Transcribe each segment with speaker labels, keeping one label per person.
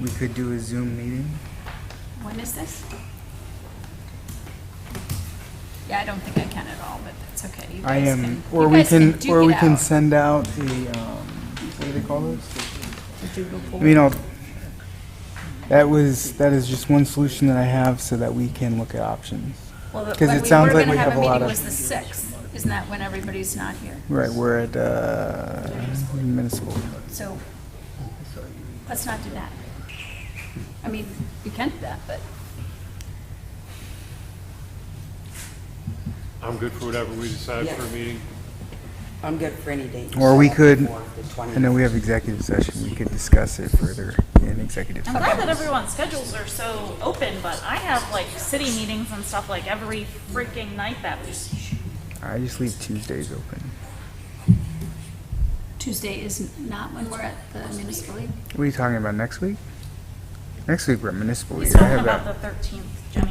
Speaker 1: We could do a Zoom meeting.
Speaker 2: When is this? Yeah, I don't think I can at all, but that's okay. You
Speaker 1: I
Speaker 2: guys
Speaker 1: am,
Speaker 2: can-
Speaker 1: or
Speaker 2: you
Speaker 1: we
Speaker 2: guys
Speaker 1: can,
Speaker 2: duke
Speaker 1: or
Speaker 2: it
Speaker 1: we can
Speaker 2: out.
Speaker 1: send out a, um, what do they call this? I mean,
Speaker 2: Doodle
Speaker 1: I'll, that was, that is just one solution that I have so that we can look at options.
Speaker 2: Well, the-
Speaker 1: 'cause it
Speaker 2: when we
Speaker 1: sounds
Speaker 2: were
Speaker 1: like
Speaker 2: gonna
Speaker 1: we have a lot
Speaker 2: meeting
Speaker 1: of-
Speaker 2: was the sixth, isn't that when everybody's not here?
Speaker 1: Right, we're at, uh, municipal.
Speaker 2: So, let's not do that. I mean, we can do that, but
Speaker 3: I'm good for whatever we decide for a meeting.
Speaker 4: I'm good for any date.
Speaker 1: Or we could, I
Speaker 4: I
Speaker 1: know we have executive session, we could discuss it further in executive.
Speaker 5: I'm glad that everyone's schedules are so open, but I have like city meetings and stuff like every freaking night that week.
Speaker 1: I just leave Tuesdays open.
Speaker 2: Tuesday is not when we're at the municipal league.
Speaker 1: What are you talking about, next week? Next week, we're at municipal.
Speaker 5: He's
Speaker 1: year. I
Speaker 5: talking
Speaker 1: have
Speaker 5: about
Speaker 1: that.
Speaker 5: the thirteenth, Jenny.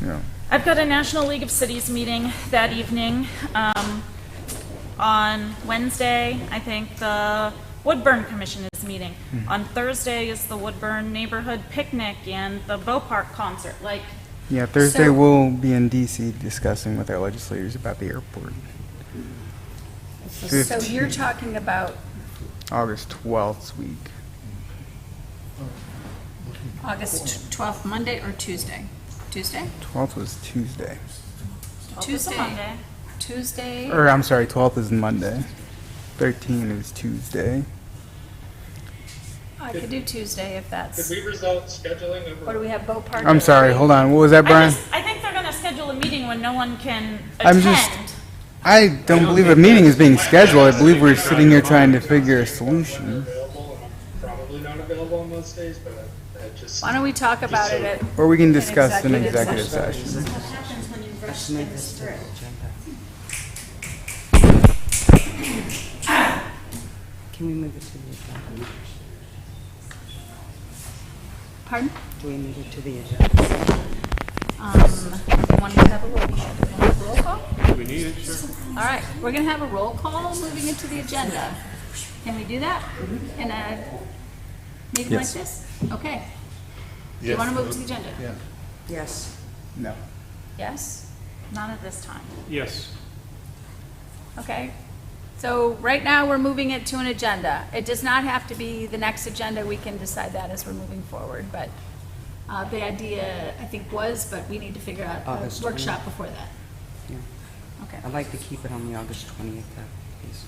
Speaker 1: No.
Speaker 5: I've got a National League of Cities meeting that evening, um, on Wednesday, I think the Woodburn Commission is meeting.
Speaker 1: Mm-hmm.
Speaker 5: On Thursday is the Woodburn Neighborhood Picnic and the Bow Park Concert, like,
Speaker 1: Yeah, Thursday
Speaker 5: So-
Speaker 1: we'll be in DC discussing with our legislators about the airport.
Speaker 2: So you're talking about
Speaker 1: August 12th week.
Speaker 2: August twelfth, Monday or Tuesday? Tuesday?
Speaker 1: 12th was Tuesday.
Speaker 5: oh, this is a
Speaker 2: Tuesday.
Speaker 5: Monday.
Speaker 2: Tuesday?
Speaker 1: Or I'm sorry, 12th is Monday. 13 is Tuesday.
Speaker 2: I could do Tuesday if that's,
Speaker 6: Could we result scheduling
Speaker 2: or
Speaker 6: over?
Speaker 2: do we have Boat Park?
Speaker 1: I'm sorry, hold on. What was that,
Speaker 5: I
Speaker 1: Brian?
Speaker 5: just, I think they're gonna schedule a meeting when no one can
Speaker 1: I'm just-
Speaker 5: attend.
Speaker 1: I don't believe a meeting is being scheduled. I believe we're sitting here trying to figure a solution.
Speaker 6: Available, and probably not available on most days, but I- I just.
Speaker 2: Why don't we talk about it at
Speaker 1: Or we can discuss in
Speaker 2: executive
Speaker 1: executive session.
Speaker 4: Can we move it to the agenda?
Speaker 2: Pardon?
Speaker 4: Do we move it to the agenda?
Speaker 2: Um, want to have a roll call? Roll call?
Speaker 3: Do we need it? Sure.
Speaker 2: All right, we're gonna have a roll call moving into the agenda. Can we do that in a meeting like
Speaker 1: Yes.
Speaker 2: this? Okay. Do you want to move to the agenda?
Speaker 4: Yes.
Speaker 1: No.
Speaker 2: Yes?
Speaker 5: Not at this time.
Speaker 3: Yes.
Speaker 2: Okay. So right now, we're moving it to an agenda. It does not have to be the next agenda. We can decide that as we're moving forward, but uh, the idea, I think, was, but we need to figure out
Speaker 4: August
Speaker 2: a
Speaker 4: 20th.
Speaker 2: workshop before that.
Speaker 4: Yeah.
Speaker 2: Okay.
Speaker 4: I'd like to keep it on the August 20th, uh, please,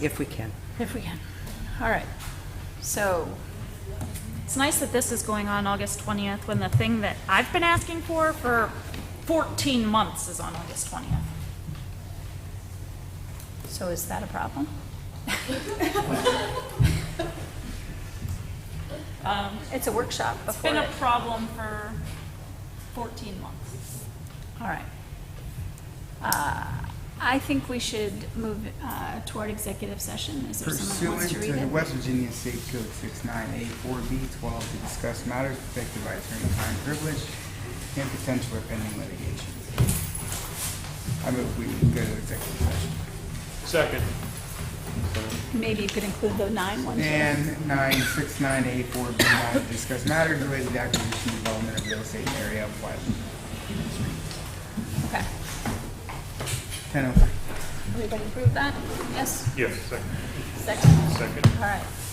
Speaker 4: if we can.
Speaker 2: If we can. All right. So,
Speaker 5: It's nice that this is going on August 20th when the thing that I've been asking for for 14 months is on August 20th.
Speaker 2: so is that a problem?
Speaker 5: Um,
Speaker 2: It's a workshop
Speaker 5: It's
Speaker 2: before
Speaker 5: been a
Speaker 2: it.
Speaker 5: problem for 14 months.
Speaker 2: All right. Uh, I think we should move uh, toward executive session. Is there someone
Speaker 1: Pursuant
Speaker 2: who wants
Speaker 1: to
Speaker 2: to read
Speaker 1: the
Speaker 2: it?
Speaker 1: West Virginia State Code 69A4B12 to discuss matters protected by attorney-client privilege and potential or pending litigation. I move we go to executive session.
Speaker 3: Second.
Speaker 2: Maybe you could include the nine ones.
Speaker 1: And 969A4B9 to discuss matters related to acquisition and development of real estate in the area of West
Speaker 2: Okay.
Speaker 1: 1003.
Speaker 2: Everybody approve that? Yes?
Speaker 3: Yes, second.
Speaker 2: Second?
Speaker 3: Second.
Speaker 2: All right.